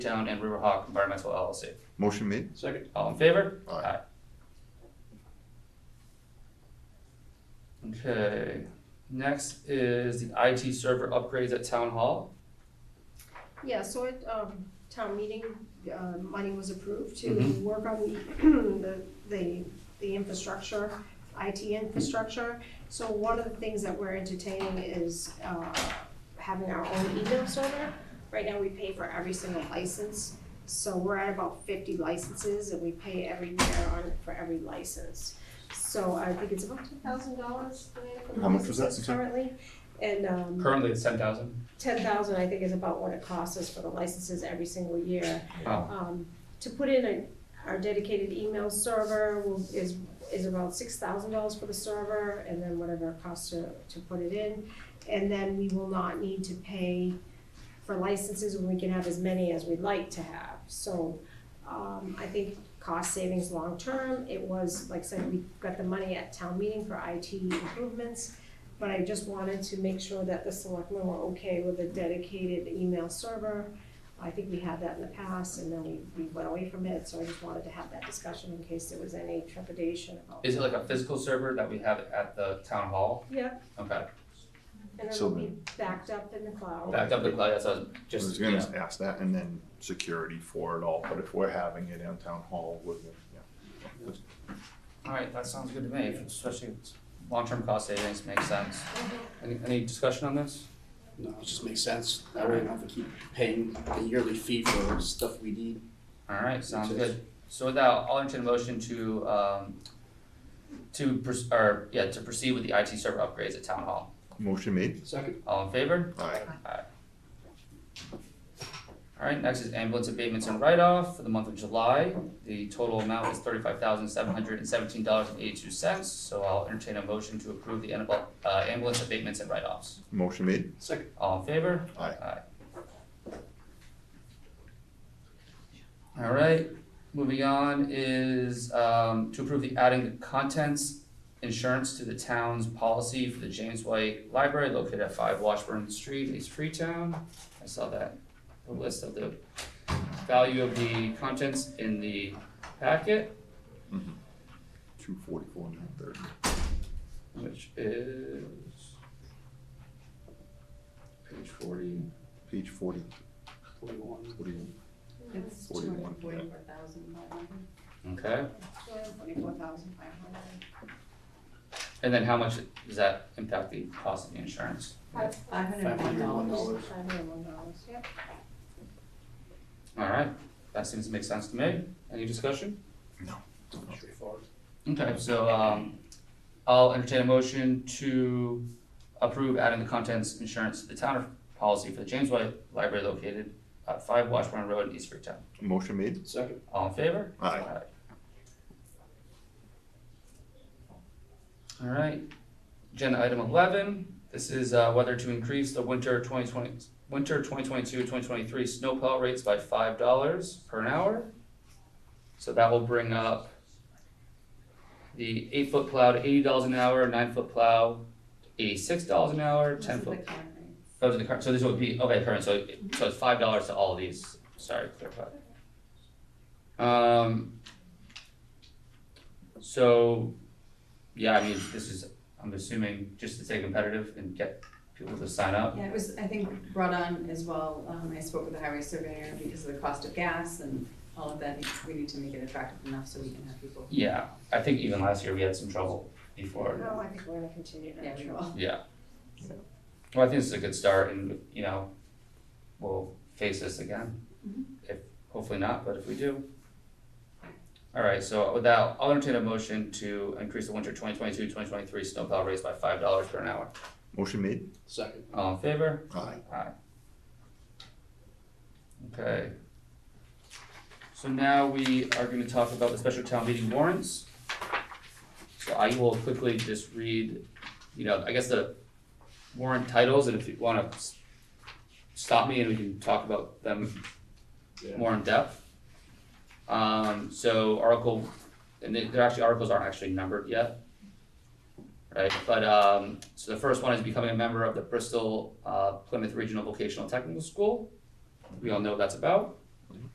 Town and Riverhawk Environmental LLC. Motion made. Second. All in favor? Aye. Okay, next is the IT server upgrades at Town Hall. Yeah, so at, um, town meeting, uh, money was approved to Mm-hmm. Mhm. work on the, the, the infrastructure, IT infrastructure. So one of the things that we're entertaining is, uh, having our own email server. Right now, we pay for every single license, so we're at about fifty licenses and we pay every year on, for every license. So I think it's about two thousand dollars, How much was that? Currently, and, um Currently it's ten thousand. ten thousand, I think, is about what it costs us for the licenses every single year. Wow. Um, to put in a, our dedicated email server will, is, is about six thousand dollars for the server, and then whatever it costs to, to put it in. And then we will not need to pay for licenses, and we can have as many as we'd like to have, so, um, I think cost savings long-term, it was, like I said, we got the money at town meeting for IT improvements. But I just wanted to make sure that the selectmen were okay with a dedicated email server. I think we had that in the past and then we, we went away from it, so I just wanted to have that discussion in case there was any trepidation about. Is it like a physical server that we have at the Town Hall? Yeah, Okay, and So it'll be backed up in the cloud. backed up the cloud, that's what I was I was just, gonna yeah. ask that and then security for it all, but if we're having it in town hall, we're, gonna- yeah. Alright, that sounds good to me, especially if it's long-term cost savings, makes sense. Mhm. Any, any discussion on this? No, it just makes sense. That way we don't have to keep paying a yearly fee for stuff we need. Alright, sounds Makes good. So with that, I'll entertain a motion to, um, to, pers- or, yeah, to proceed with the IT server upgrades at Town Hall. Motion made. Second. All in favor? Aye. Alright, next is ambulance abatements and write-off for the month of July. The total amount is thirty-five thousand seven hundred and seventeen dollars and eighty-two cents. So I'll entertain a motion to approve the ambul- uh, ambulance abatements and write-offs. Motion made. Second. All in favor? Aye. Alright, moving on is, um, to approve the adding the contents insurance to the town's policy for the James White Library located at five Washburn Street, East Freetown. I saw that, the list of the value of the contents in the packet, Two forty-four, nine thirty. which is page forty, Page forty, Forty-one. forty, It's forty-one. yeah. okay? two hundred forty-four thousand five hundred. And then how much does that impact the cost of the insurance? Five hundred and one dollars. dollars. Five hundred one dollars, yep. Alright, that seems to make sense to me. Any discussion? Straightforward. Okay, so um I'll entertain a motion to approve adding the contents insurance to the town policy for the James White Library located at five Washburn Road in East Freetown. Motion made. Second. All in favor? Aye. All right, agenda item eleven, this is uh whether to increase the winter twenty twenty, winter 2022-2023 snowplow rates by five dollars per an hour. So that will bring up the eight foot plow to eighty dollars an hour, nine foot plow eighty-six dollars an hour, ten foot those are the current, so this would be, okay, current, so, it- so it's five dollars to all of these, sorry, clarify. Um. So, yeah, I mean, this is, I'm assuming, just to stay competitive and get people to sign up. Yeah, it was, I think, brought on as well, um, I spoke with the highway surveyor because of the cost of gas and all of that, we need to make it attractive enough so we can have people. Yeah, I think even last year we had some trouble before, No, I think we're gonna continue to. Yeah, we will. yeah. Well, I think this is a good start and, you know, we'll face this again. Mhm. If, hopefully not, but if we do. Alright, so with that, I'll entertain a motion to increase the winter 2022-2023 snowplow rates by five dollars per an hour. Motion made. Second. All in favor? Aye. Okay. So now we are gonna talk about the special town meeting warrants. So I will quickly just read, you know, I guess the warrant titles, and if you wanna s- stop me and we can talk about them Yeah. more in depth. Um, so article, and they- they're actually, articles aren't actually numbered yet. Right, but, um, so the first one is becoming a member of the Bristol uh, Plymouth Regional Vocational Technical School. We all know what that's about.